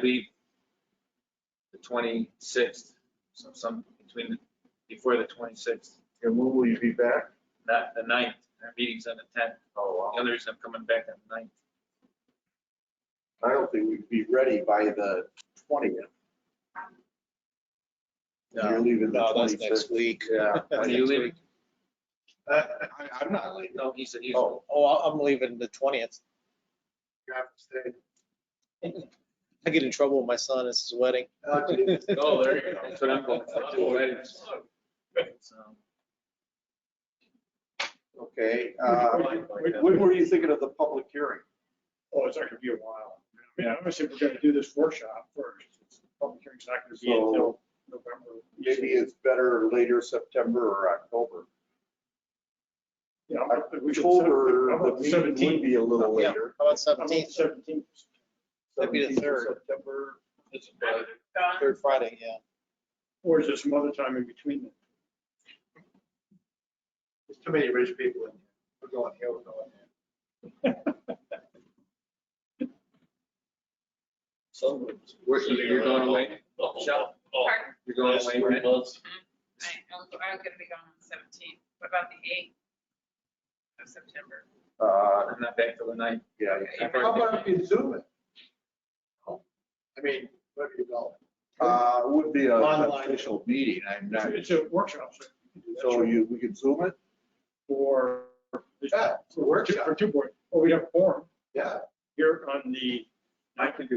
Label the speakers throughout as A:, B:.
A: believe the twenty-sixth, so some between, the- before the twenty-sixth,
B: And when will you be back?
A: not the ninth, our meeting's on the tenth.
B: Oh,
A: The other reason I'm coming back on the ninth.
B: I don't think we'd be ready by the twentieth. You're
C: No,
B: leaving the
C: no, that's next
B: twenty-fifth.
C: week.
B: Yeah.
A: When are you leaving?
B: I, I'm not leaving.
A: No, he said he's,
C: Oh, oh, I- I'm leaving the twentieth.
B: You have to stay.
C: I get in trouble with my son. It's his wedding.
B: Uh,
A: oh, there you go, that's what I'm going for, two weddings. So,
B: Okay, uh, when- when were you thinking of the public hearing?
D: Oh, it's not gonna be a while. I mean, I would say we're gonna do this workshop first. Public hearing's not gonna be until November.
B: Maybe it's better later September or October.
D: Yeah, but we should set it-
B: October,
D: I'm
B: the
D: up to
B: meeting would
D: 17.
B: be a little
C: Yeah.
B: later.
C: How about
D: I'm up to
C: seventeenth?
D: 17.
C: That'd be the
B: 17th of
C: third.
B: September.
C: Third Friday, yeah.
D: Or is there some other time in between them?
B: There's too many rich people in here. We're going here, we're going there.
A: where- you're going away, Michelle?
E: Pardon?
A: You're going away, right?
E: I- I'm I'm gonna be gone on the seventeenth. What about the eighth of September?
B: Uh,
A: I'm not back till the ninth.
B: yeah.
A: How
B: about you zoom it? I mean, where do you go? Uh, it would be a- an
D: Online.
B: official meeting. I'm not,
D: It's a workshop, so. you can do that
B: so you, we could zoom it?
D: For.
B: Yeah, it's a
D: For two- for two board, or we have forum
B: Yeah.
D: here on the.
A: I can do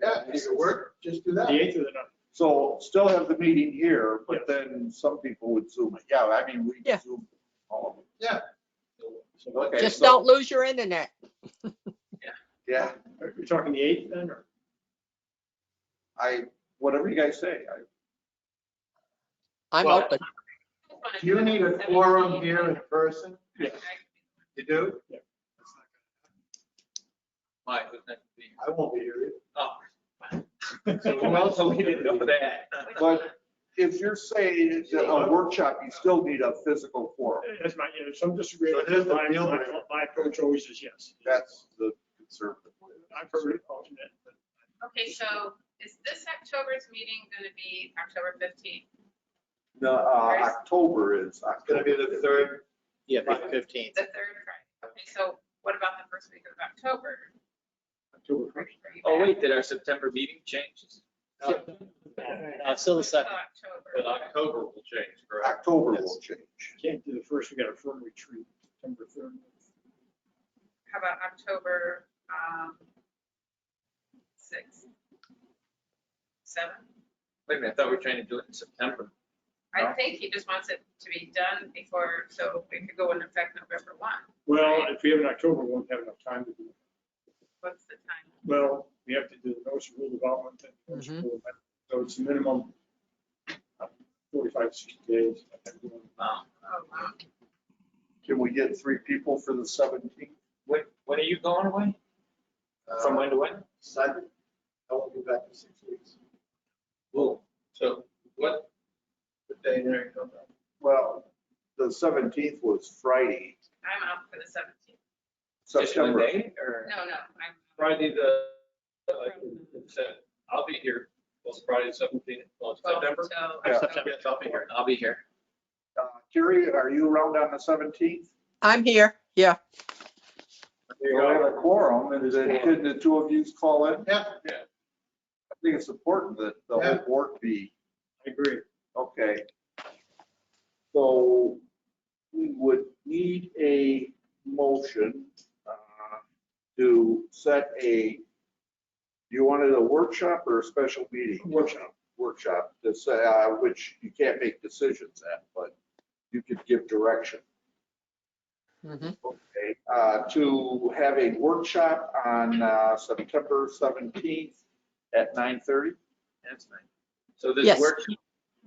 B: Yeah, if it work, just do that.
D: The eighth of the ninth.
B: So still have the meeting here, but
D: Yes.
B: then some people would zoom it. Yeah, I mean, we
F: Yeah.
B: could zoom all of it. Yeah. Okay.
F: Just
B: so-
F: don't lose your internet.
B: Yeah,
D: Are you talking the eighth then, or?
B: I, whatever you guys say, I
F: I'm
G: Well-
F: open.
G: Do you need a quorum here in person?
D: Yeah.
G: You do?
A: Why, who's next to be?
G: I won't be here.
A: Oh.
G: So
A: Well, so we didn't know that.
B: But- if you're saying that a workshop, you still need a physical forum.
D: That's my, you know, some
G: So here's
D: disagreement.
G: the
D: My,
G: deal
D: my-
G: with it.
D: my approach always is yes.
B: That's the conservative way.
D: I've heard it alternate, but
E: Okay, so is this October's meeting gonna be October fifteenth?
B: No, uh, October is.
G: It's gonna be the third.
C: Yeah, fifteenth.
E: The third Friday. Okay, so what about the first week of October?
D: October
E: Are you- are you
A: Oh,
E: back?
A: wait, did our September meeting change?
C: Uh, still the
E: Until
C: second.
E: October.
A: October will change,
B: October will change.
D: Can't do the first, we got a firm retreat, September third.
E: How about October, um, sixth? Seventh?
A: Wait a minute, I thought we were trying to do it in September.
E: I think he just wants it to be done before, so it could go into effect November one.
D: Well, if we have an October, we won't have enough time to do it.
E: What's the time?
D: Well, we have to do the notice of rule development. and notice of rule amendment. So it's a minimum of 45, 60 days.
A: Wow.
E: Oh, wow.
B: Can we get three people for the seventeenth?
A: When, when are you going away? From when to when?
G: Sunday. I won't be back in six weeks.
A: Well, so what?
G: The day there, you know.
B: Well, the seventeenth was Friday,
E: I'm out for the seventeenth.
A: Just one
B: September.
A: day or?
E: No, no, I'm.
H: Friday the, like you said, I'll be here, well, it's Friday seventeenth, well, it's
E: twelve
H: September.
E: till-
B: Yeah.
H: September, yes, I'll be here.
A: I'll be here.
B: Uh, Jerry, are you around on the seventeenth?
F: I'm here. Yeah.
B: We have a quorum, and then can the two of you call in?
G: Yeah,
B: I think it's important that the whole
G: Yeah.
B: board be,
D: I agree.
B: okay. So we would need a motion uh, to set a, you wanted a workshop or a special meeting?
D: Workshop.
B: Workshop, to say, uh, which you can't make decisions at, but you could give direction. Mm-hmm.
F: Mhm.
B: Okay, uh, to have a workshop on uh, September 17th at 9:30?
A: That's fine. So this
F: Yes.
A: workshop,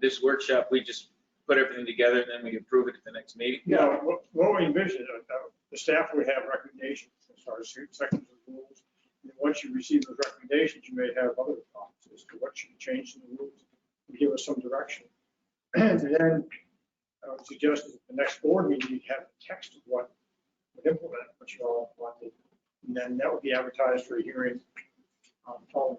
A: this workshop, we just put everything together and then we approve it at the next meeting?
D: Now, what- what we envision, uh, uh, the staff would have recommendations as far as sections of rules. And once you receive those recommendations, you may have other thoughts as to what should change in the rules. and Give us some direction. And then I would suggest that the next board meeting, you have the text of what would implement, what you all wanted. And then that would be advertised for a hearing on following.